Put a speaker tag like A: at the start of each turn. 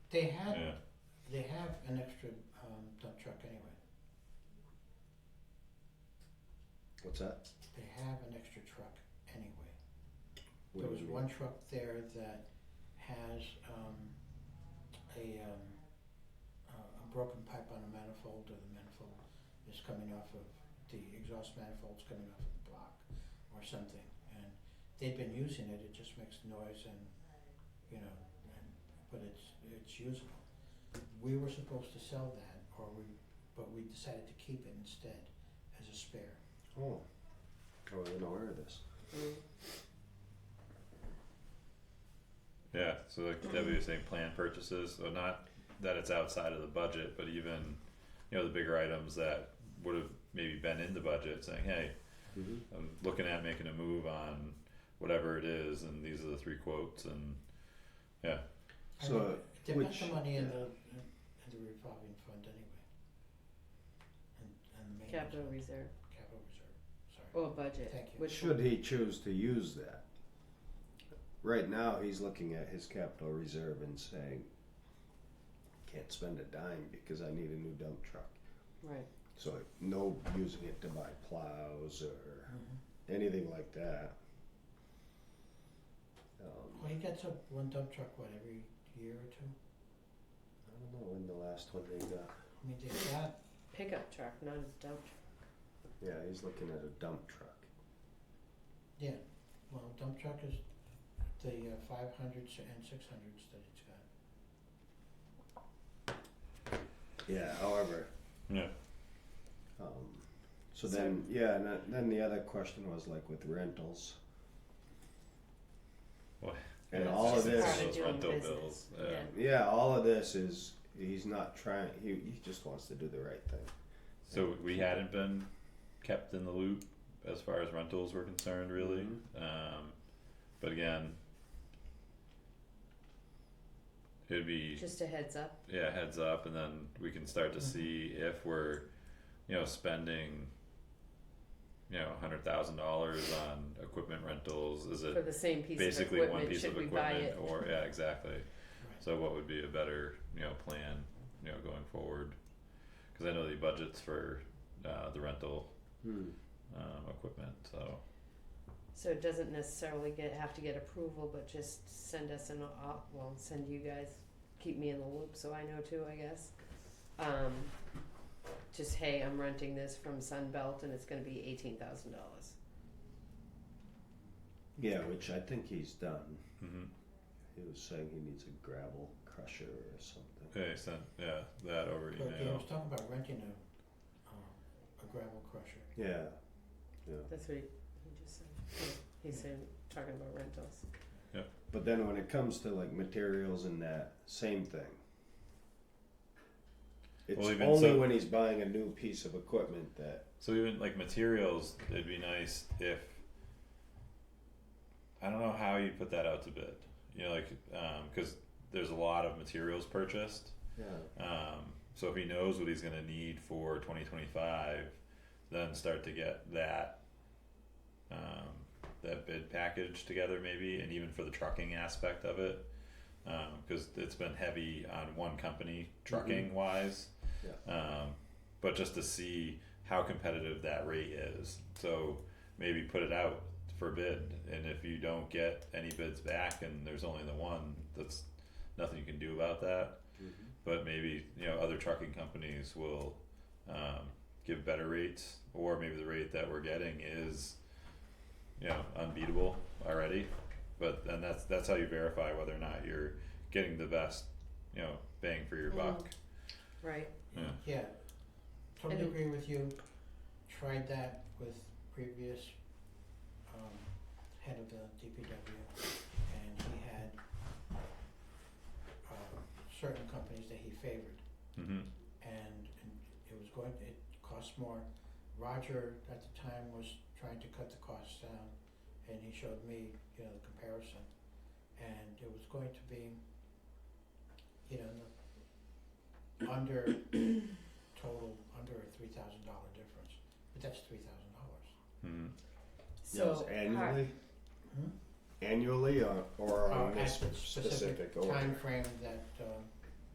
A: They have,
B: Yeah.
A: they have an extra um dump truck anyway.
C: What's that?
A: They have an extra truck anyway.
C: What
A: There
C: do
A: was
C: you mean?
A: one truck there that has um a um a a broken pipe on a manifold or the manifold is coming off of the exhaust manifold's coming off of the block or something and they've been using it, it just makes noise and you know, and but it's it's usable. We were supposed to sell that or we but we decided to keep it instead as a spare.
C: Oh, I wasn't aware of this.
B: Yeah, so like Debbie was saying, planned purchases, so not that it's outside of the budget, but even, you know, the bigger items that would have maybe been in the budget, saying, hey,
C: Mm-hmm.
B: I'm looking at making a move on whatever it is, and these are the three quotes, and
A: I
C: So,
A: mean, They put the
C: which-
A: money in the, in the revolving fund anyway. And, and the main.
D: Capital
A: reserve-
D: reserve
A: Capital reserve, sorry.
D: or budget,
A: Thank you.
D: which
C: Should he choose to use that? Right now, he's looking at his capital reserve and saying, can't spend a dime because I need a new dump truck.
D: right?
C: So, no using it to buy plows or
A: Mhm.
C: anything like that. Um,
A: Well, he gets up one dump truck, what, every year or two?
C: I don't know when the last one they got.
A: I mean, they got,
D: Pickup truck, not a dump
C: Yeah, he's looking at a dump truck.
A: well, dump truck is the uh, five hundreds and six hundreds that it's got.
C: Yeah, however.
B: Yeah.
C: Um, so
D: So-
C: then, yeah, and then- then the other question was like with rentals.
B: Well,
C: And
D: That's
C: all of
D: just
B: it's
D: part
C: this,
B: those
D: doing
B: rental
D: business,
B: bills, um, yeah.
D: yeah.
C: yeah, all of this is, he's not trying, he, he just wants to do the right thing.
B: So we hadn't been kept in the loop as far as rentals were concerned, really. Um, but again, it'd be
D: truck. Just a heads up.
B: yeah heads up, and then we can start to
D: Mm-hmm.
A: Mhm.
B: see if we're, you know, spending, you know, hundred thousand dollars on equipment rentals. Is
D: For
B: it
D: the same piece of
B: basically one
D: equipment,
B: piece of
D: should we buy
B: equipment
D: it?
B: or yeah exactly?
A: Right.
B: So what would be a better you know plan you know going forward? Because I know the budgets for uh, the rental
C: Hmm.
B: um, equipment. So
D: So it doesn't necessarily get, have to get approval, but just send us an, op- well, send you guys, keep me in the loop so I know too, I guess. Um, just, hey, I'm renting this from Sunbelt and it's gonna be eighteen thousand dollars.
C: Yeah, which I think he's done.
B: mm-hmm.
C: He was saying he needs a gravel crusher or something.
B: yeah, sent yeah that over
A: But, yeah, I
B: email.
A: was talking about renting a, um, a gravel crusher.
C: Yeah,
D: That's what he, he just said. He said, talking about rentals.
C: but then when it comes to like materials and that, same thing. It's
B: Well, even
C: only
B: so-
C: when he's buying a new piece of equipment that
B: So even like materials, it'd be nice if I don't know how you put that out to bid. You know, like because there's a lot of materials purchased.
C: Yeah,
B: Um, so if he knows what he's gonna need for twenty twenty five, then start to get that um, that bid package together maybe, and even for the trucking aspect of it, because it's been heavy on one company trucking wise.
C: Yeah.
B: Um, but just to see how competitive that rate is, so maybe put it out for bid, and if you don't get any bids back, and there's only the one, that's nothing you can do about that
A: Mm-hmm.
B: but maybe you know other trucking companies will um, give better rates, or maybe the rate that we're getting is you know unbeatable already. But and that's that's how you verify whether or not you're getting the best you know bang for your
D: Mhm.
B: buck.
D: Right.
B: Yeah.
A: Yeah, totally
D: And-
A: agree with you. Tried that with previous um head of the DPW and he had um certain companies that he favored
B: Mm-hmm.
A: and and it was going, it cost more. Roger at the time was trying to cut the costs down and he showed me, you know, the comparison. And it was going to be, you know, the under total, under a three thousand dollar difference, but that's three thousand dollars.
B: Mm-hmm.
C: that was
D: So, how-
C: annually,
A: Hmm?
C: annually or, or on
A: Uh,
C: a
A: at
C: sp-
A: the
C: specific
A: specific
C: order.
A: timeframe that um